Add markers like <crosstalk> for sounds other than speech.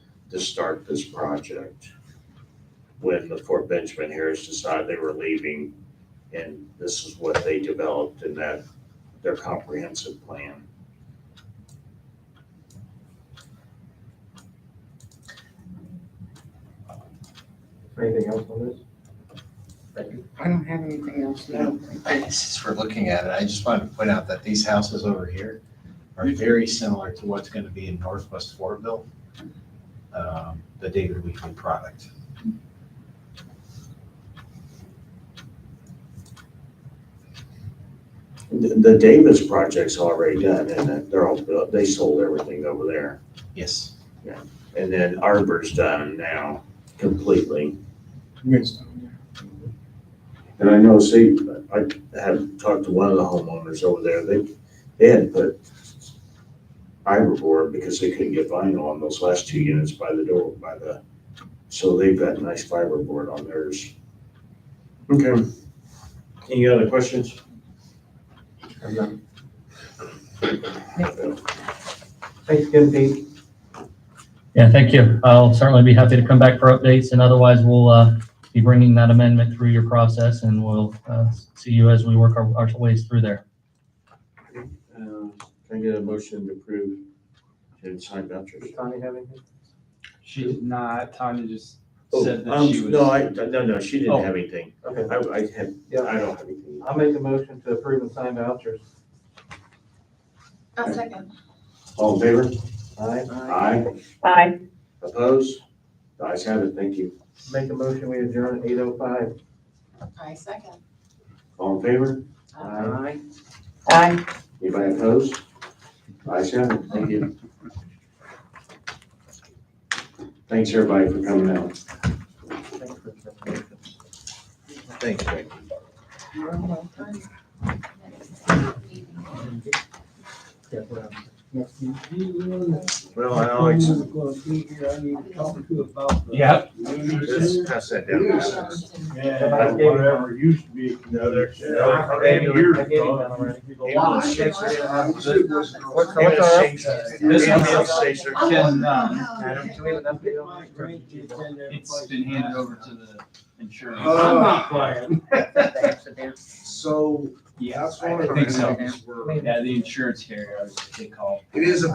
to start this project when the Fort Benjamin Harris decided they were leaving. And this is what they developed in that, their comprehensive plan. Anything else on this? Thank you. I don't have anything else, no. Since we're looking at it, I just wanted to point out that these houses over here are very similar to what's going to be in Northwest Fortville, um, the David Weekly product. The the Davis project's already done and they're all built, they sold everything over there. Yes. And then Arbor's done now completely. And I know, see, I had talked to one of the homeowners over there, they, they had put Arbor board because they couldn't get vinyl on those last two units by the door, by the, so they've got nice fiber board on theirs. Okay. Any other questions? I'm done. Thanks again, Pete. Yeah, thank you. I'll certainly be happy to come back for updates, and otherwise, we'll uh, be bringing that amendment through your process, and we'll uh, see you as we work our our ways through there. Uh, Can I get a motion to approve and sign vouchers? Does Tanya have anything? She's not, Tanya just Oh, said that um, she was. No, I, no, no, she Oh. didn't have anything. Okay, I, I had, Yeah. I don't have anything. I'll make a motion to approve and sign vouchers. I'll second. All in favor? Aye. Aye. Aye. Opposed? The ayes have it, thank you. Make a motion, we adjourn at eight oh five. I second. All in favor? Aye. Aye. Anybody opposed? The ayes have it, thank you. Thanks, everybody, for coming out. Thanks for the information. Thank you. You're welcome. Yeah, well. Well, I always, Yeah. just pass that Somebody gave it up. used to be. Another. I gave it up. I gave it up already. What's What's our- This one Station. can, um, Adam, do we have an update on that? it's been handed over to Oh. the insurance. I'm not <laughs> playing. So, Yeah, that's one I of the think so. things we're. Yeah, the insurance carrier, I was- they call. It is a